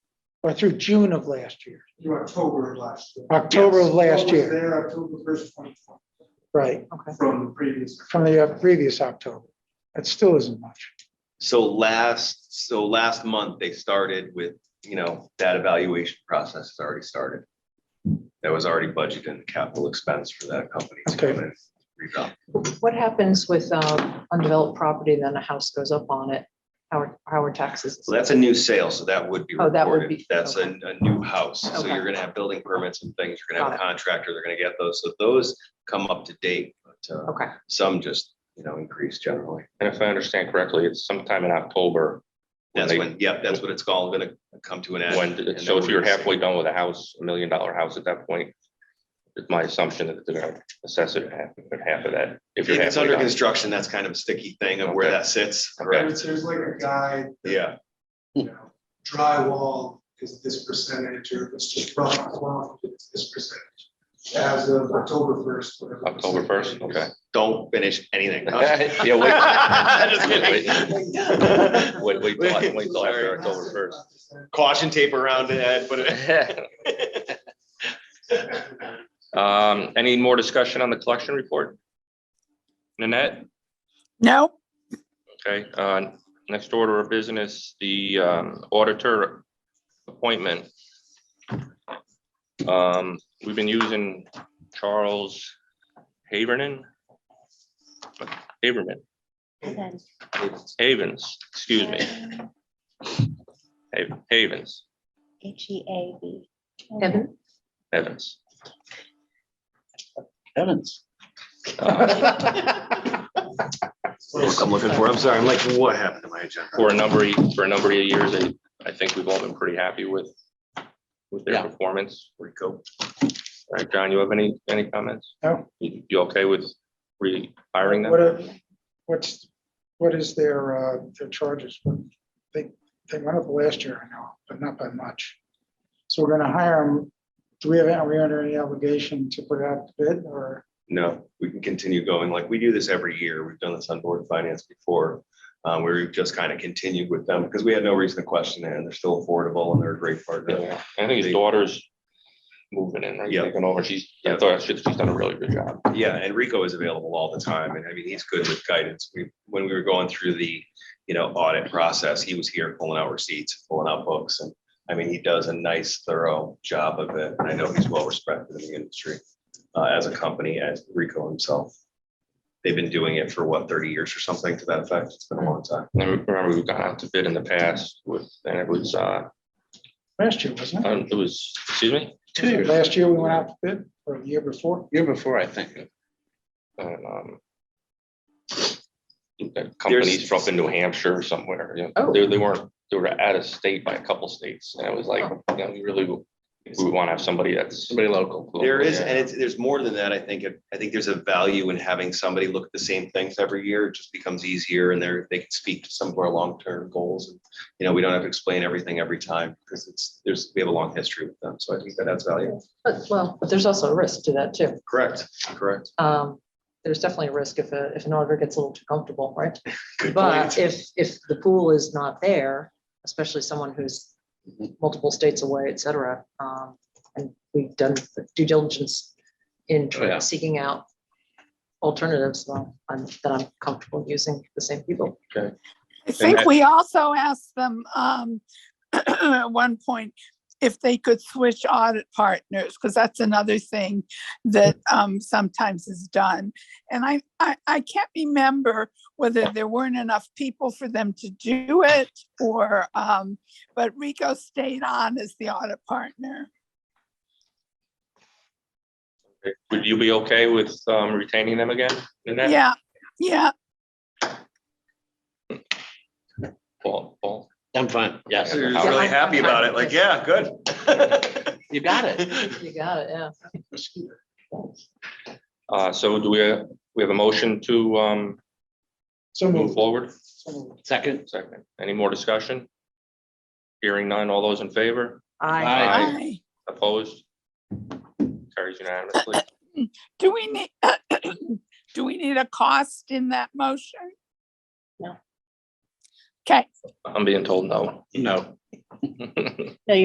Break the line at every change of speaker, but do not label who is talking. or through June of last year,
through October of last year.
October of
Yes.
last
What was
year.
There, October first, twenty twenty,
right,
Okay.
from the previous.
from the uh, previous October. That still isn't much.
So last, so last month, they started with, you know, that evaluation process has already started. That was already budgeted in the capital expense for that company to come
Okay.
and revamp.
What happens with um, undeveloped property, then a house goes up on it? How are, how are taxes?
So that's a new sale, so that would be
Oh, that would
recorded.
be-
That's a, a new house. So
Okay.
you're gonna have building permits and things. You're gonna have a
Got
contractor. They're gonna get those. So those come up to date. But uh,
Okay,
some just, you know, increase generally.
And if I understand correctly, it's sometime in October. when
That's
they-
when, yep, that's what it's called, gonna come to an end.
When,
and
so
then
if you're
we'll see.
halfway done with a house, a million dollar house at that point, it's my assumption that they're gonna assess it at half, at half of that.
If
If you're
it's
halfway
under
done.
construction, that's kind of a sticky thing of where
Okay.
that sits,
Okay.
correct?
There's there's like a guide. that,
Yeah,
you know, Drywall is this percentage, or if it's just rough, rough, it's this percentage. As of October first.
October 1st, okay.
don't finish anything.
Yeah,
Just
wait.
kidding.
Wait, wait, till I- wait till after
Sorry.
October first.
Caution tape around it, Ed, put it.
Um, any more discussion on the collection report? Nanette,
No,
okay, uh, next order of business, the um, auditor appointment. Um, we've been using Charles Haverman. Haverman, Havens, excuse me, Hav- Havens,
H E A V.
Evan?
Evans.
Evans.
Uh,
I'm looking for, I'm sorry, I'm like, what happened to my agenda?
for a number, of- for a number of years, I, I think we've all been pretty happy with, with their
Yeah.
performance. Rico. All right, John, you have any, any comments?
No.
You you okay with rehiring
What,
them?
are- what's, what is their, uh, their charges? They, they went up last year, I know, but not by much. So we're gonna hire them. Do we have, are we under any obligation to put out the bid or?
No, we can continue going like we do this every year. We've done this on board of finance before. Um, we just kind of continued with them because we had no reason to question it and they're still affordable and they're a great partner.
Yeah, I think his daughter's moving in, right,
Yeah.
taking over. She's,
Yeah.
I thought, she's she's done a really good job.
Yeah, and Rico is available all the time, and I mean, he's good with guidance. We, when we were going through the, you know, audit process, he was here pulling out receipts, pulling out books, and I mean, he does a nice thorough job of it. and I know he's well respected in the industry uh, as a company, as Rico himself. They've been doing it for what, thirty years or something to that effect? It's been a long time.
And I remember we've gone out to bid in the past with, and it was, uh,
Last year, wasn't it?
um, it was, excuse me?
Uh, Two years.
Last year we went out to bid or the year before?
Year before, I think.
And, um, that companies from up in New Hampshire or somewhere, you
Oh.
know, they, they weren't, they were out of state by a couple states, and it was like,
Oh.
you know, we really, we want to have somebody that's.
Somebody local.
There is,
Yeah.
and it's, there's more than that. I think, it- I think there's a value in having somebody look at the same things every year. It just becomes easier and they're, they can speak to some of our long-term goals. and You know, we don't have to explain everything every time because it's, there's, we have a long history with them. So I think that adds value.
But, well, but there's also a risk to that too.
Correct, correct.
Um, There's definitely a risk if, a if an auditor gets a little too comfortable, right?
Good
But
point.
if, if the pool is not there, especially someone who's multiple states away, et cetera, um, and we've done the due diligence in
Oh, yeah.
seeking out alternatives, well, I'm, that I'm comfortable using the same people.
I think
that-
we also asked them um, at one point if they could switch audit partners, because that's another thing that um, sometimes is done. And I, I, I can't remember whether there weren't enough people for them to do it or, um, but Rico stayed on as the audit partner.
Would you be okay with um, retaining them again? Nanette?
Yeah, yeah.
Paul, Paul,
I'm fine. Yes,
You're
Yeah,
really
I'm-
happy
I'm
about
fine
it.
with
Like, yeah, good.
you got it.
You got it, yeah.
uh, so do we, uh, we have a motion to um,
So
move
moved.
forward?
So moved.
Second.
Second, any more discussion? Hearing none, all those in favor,
I,
Aye.
Aye.
Aye.
opposed? Carries unanimously.
Do we need, do we need a cost in that motion?
No.
Okay.
I'm being told no.
No.